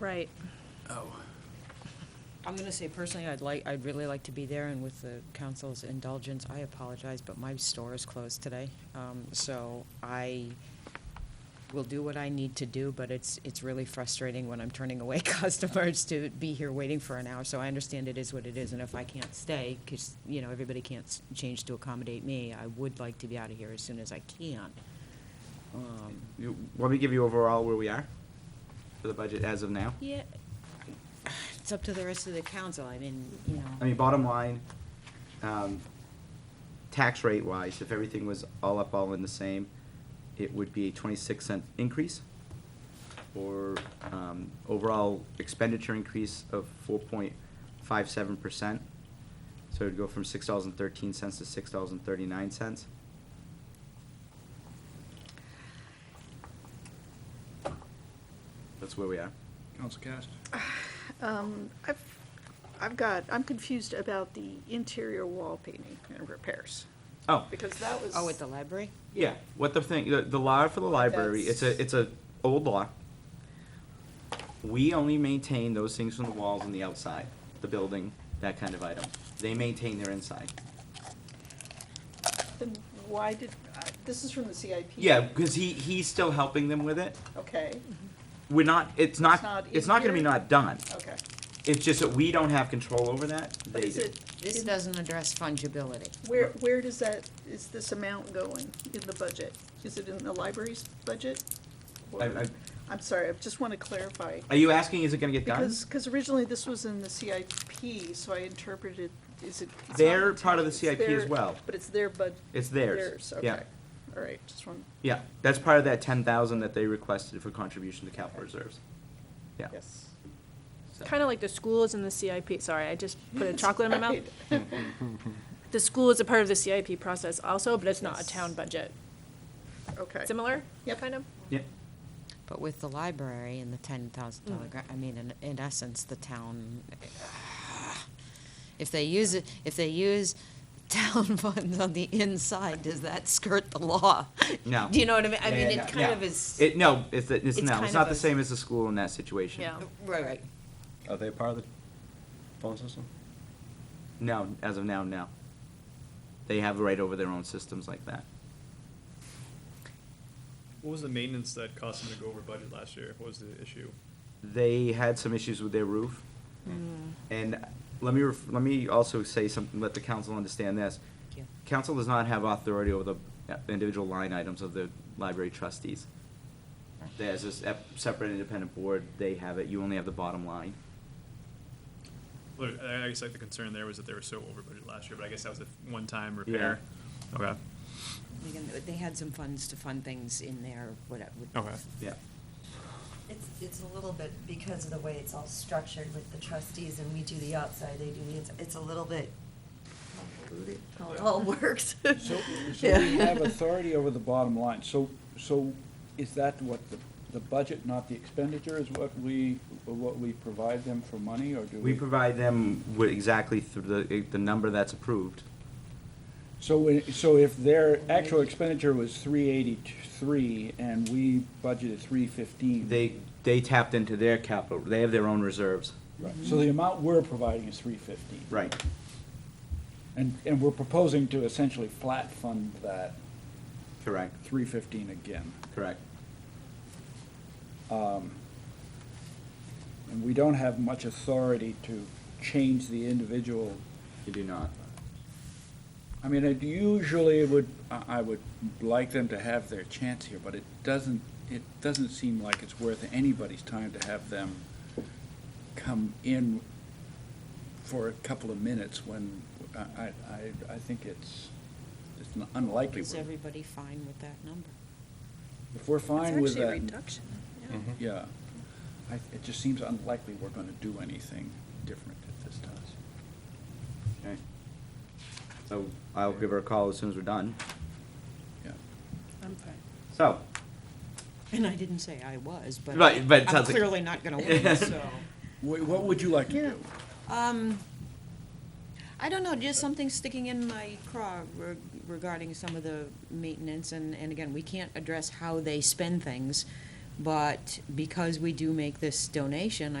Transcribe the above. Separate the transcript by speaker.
Speaker 1: Right.
Speaker 2: Oh.
Speaker 3: I'm going to say personally, I'd like, I'd really like to be there, and with the council's indulgence, I apologize, but my store is closed today. Um, So I will do what I need to do, but it's, it's really frustrating when I'm turning away customers to be here waiting for an hour. So I understand it is what it is, and if I can't stay, because, you know, everybody can't s- change to accommodate me, I would like to be out of here as soon as I can. Um,
Speaker 2: You, want me to give you overall where we are for the budget as of now?
Speaker 3: Yeah, it's up to the rest of the council, I mean, you know.
Speaker 2: I mean, bottom line, um, tax rate wise, if everything was all up, all in the same, it would be a twenty-six cent increase or, um, overall expenditure increase of four point five seven percent. So it'd go from six dollars and thirteen cents to six dollars and thirty-nine cents. That's where we are.
Speaker 4: Council Cast.
Speaker 5: Um, I've, I've got, I'm confused about the interior wall painting and repairs,
Speaker 2: Oh,
Speaker 5: because that was.
Speaker 3: Oh, at the library?
Speaker 2: Yeah, what the thing, the, the law for the library, it's a, it's a old law. We only maintain those things from the walls and the outside, the building, that kind of item. They maintain their inside.
Speaker 5: Then why did, I- this is from the CIP?
Speaker 2: Yeah, because he, he's still helping them with it.
Speaker 5: Okay,
Speaker 2: We're not, it's not,
Speaker 5: not
Speaker 2: it's not gonna be
Speaker 5: in here?
Speaker 2: not done.
Speaker 5: okay.
Speaker 2: It's just that we don't have control over that,
Speaker 5: But
Speaker 2: they
Speaker 5: is
Speaker 2: do.
Speaker 5: it,
Speaker 3: This
Speaker 5: in-
Speaker 3: doesn't address fungibility.
Speaker 5: where, where does that, is this amount going in the budget? Is it in the library's budget? Or-
Speaker 2: I- I-
Speaker 5: I'm sorry, I just want to clarify.
Speaker 2: Are you asking, is it gonna get done?
Speaker 5: Because, because originally this was in the CIP, so I interpreted, is it? it's not
Speaker 2: They're part of the
Speaker 5: intended, it's
Speaker 2: CIP as
Speaker 5: their-
Speaker 2: well.
Speaker 5: But it's their bud.
Speaker 2: It's theirs, yeah.
Speaker 5: okay. All right, just one,
Speaker 2: Yeah, that's part of that ten thousand that they requested for contribution to capital reserves. Yeah.
Speaker 5: yes.
Speaker 2: so.
Speaker 1: Kind of like the school is in the CIP, sorry, I just put a chocolate in my mouth.
Speaker 5: Right.
Speaker 1: The school is a part of the CIP process also, but it's not a
Speaker 5: Yes.
Speaker 1: town budget.
Speaker 5: Okay.
Speaker 1: Similar?
Speaker 5: Yep.
Speaker 1: Kind of?
Speaker 2: Yeah,
Speaker 3: But with the library and the ten thousand dollar grant, I mean, in, in essence, the town, if they use it, if they use town funds on the inside, does that skirt the law?
Speaker 2: No.
Speaker 3: Do you know what I mean? I
Speaker 2: Yeah,
Speaker 3: mean,
Speaker 2: yeah,
Speaker 3: it kind
Speaker 2: yeah.
Speaker 3: of is,
Speaker 2: It, no, it's, it's,
Speaker 3: It's
Speaker 2: no,
Speaker 3: kind
Speaker 2: it's not
Speaker 3: of
Speaker 2: the
Speaker 3: a-
Speaker 2: same as the school in that situation.
Speaker 1: Yeah.
Speaker 3: Oh, right, right.
Speaker 6: Are they part of the phone system?
Speaker 2: No, as of now, no. They have right over their own systems like that.
Speaker 7: What was the maintenance that cost them to go over budget last year? What was the issue?
Speaker 2: They had some issues with their roof.
Speaker 3: Mm.
Speaker 2: And let me, ref- let me also say something, let the council understand this.
Speaker 3: Thank you.
Speaker 2: Council does not have authority over the uh, individual line items of the library trustees. There's a sep- separate independent board, they have it, you only have the bottom line.
Speaker 7: Well, I I guess like the concern there was that they were so over budget last year, but I guess that was a one-time repair. Okay,
Speaker 3: They can- They had some funds to fund things in there, whatever.
Speaker 7: okay.
Speaker 2: Yeah.
Speaker 8: It's, it's a little bit because of the way it's all structured with the trustees and we do the outside, they do the inside. It's a little bit convoluted, how it all works.
Speaker 6: So, so
Speaker 8: Yeah.
Speaker 6: we have authority over the bottom line, so, so is that what the, the budget, not the expenditure, is what we, what we provide them for money, or do we?
Speaker 2: We provide them with exactly through the, eh, the number that's approved.
Speaker 6: So, we- so if their actual expenditure was three eighty-three and we budgeted three fifteen?
Speaker 2: They, they tapped into their capital, they have their own reserves.
Speaker 6: So the amount we're providing is three fifteen?
Speaker 2: Right.
Speaker 6: And, and we're proposing to essentially flat fund that
Speaker 2: Correct,
Speaker 6: three fifteen again.
Speaker 2: correct.
Speaker 6: Um, And we don't have much authority to change the individual.
Speaker 2: You do not.
Speaker 6: I mean, it usually would, I I would like them to have their chance here, but it doesn't, it doesn't seem like it's worth anybody's time to have them come in for a couple of minutes when, I, I, I- I think it's, it's unlikely.
Speaker 3: Is
Speaker 6: we're-
Speaker 3: everybody fine with that number?
Speaker 6: If we're fine
Speaker 5: It's
Speaker 6: with
Speaker 5: actually a
Speaker 6: that.
Speaker 5: reduction, yeah.
Speaker 6: Yeah, I, it just seems unlikely we're gonna do anything different at this time.
Speaker 2: Okay. So I'll give her a call as soon as we're done.
Speaker 6: Yeah,
Speaker 3: I'm fine.
Speaker 2: So,
Speaker 3: And I didn't say I was, but
Speaker 2: Mm-hmm. Right, but it
Speaker 3: I'm
Speaker 2: sounds like-
Speaker 3: clearly not gonna win, so.
Speaker 6: Wha- what would you like to do?
Speaker 3: Um, I don't know, just something sticking in my craw re- regarding some of the maintenance, and, and again, we can't address how they spend things, But because we do make this donation,